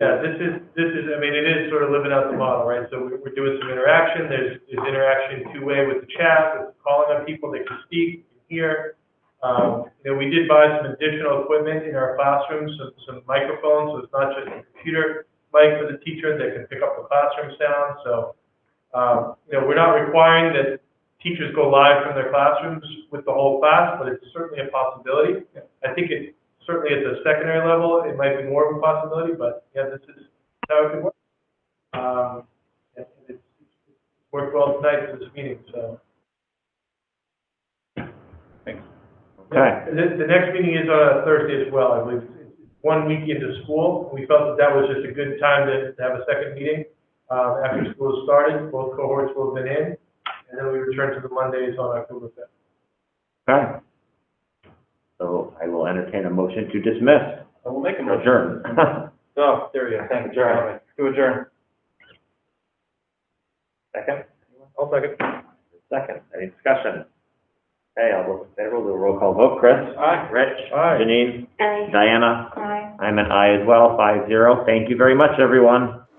Yeah, this is, this is, I mean, it is sort of living out the model, right? So we- we're doing some interaction, there's, there's interaction two-way with the chat, with calling on people, they can speak, they can hear. Um, you know, we did buy some additional equipment in our classrooms, some, some microphones, so it's not just a computer mic for the teacher that can pick up the classroom sound, so, um, you know, we're not requiring that teachers go live from their classrooms with the whole class, but it's certainly a possibility. I think it, certainly at the secondary level, it might be more of a possibility, but yeah, this is how it could work. Um, and it's it's worked well tonight for this meeting, so. Okay. The, the next meeting is on a Thursday as well, I believe. It's One week into school, we felt that that was just a good time to, to have a second meeting. Um, after school has started, both cohorts will have been in, and then we return to the Mondays on October fifth. Okay. So I will entertain a motion to dismiss, I will make a or motion. adjourn. Oh, there we go, thank you, Jeremy. To adjourn. Second, I'll second. second, any discussion? Okay, I'll vote in favor, we'll do a roll call vote. Chris? Aye. Rich? Aye. Janine? Aye. Diana? Aye. I'm an aye as well, five zero. Thank you very much, everyone.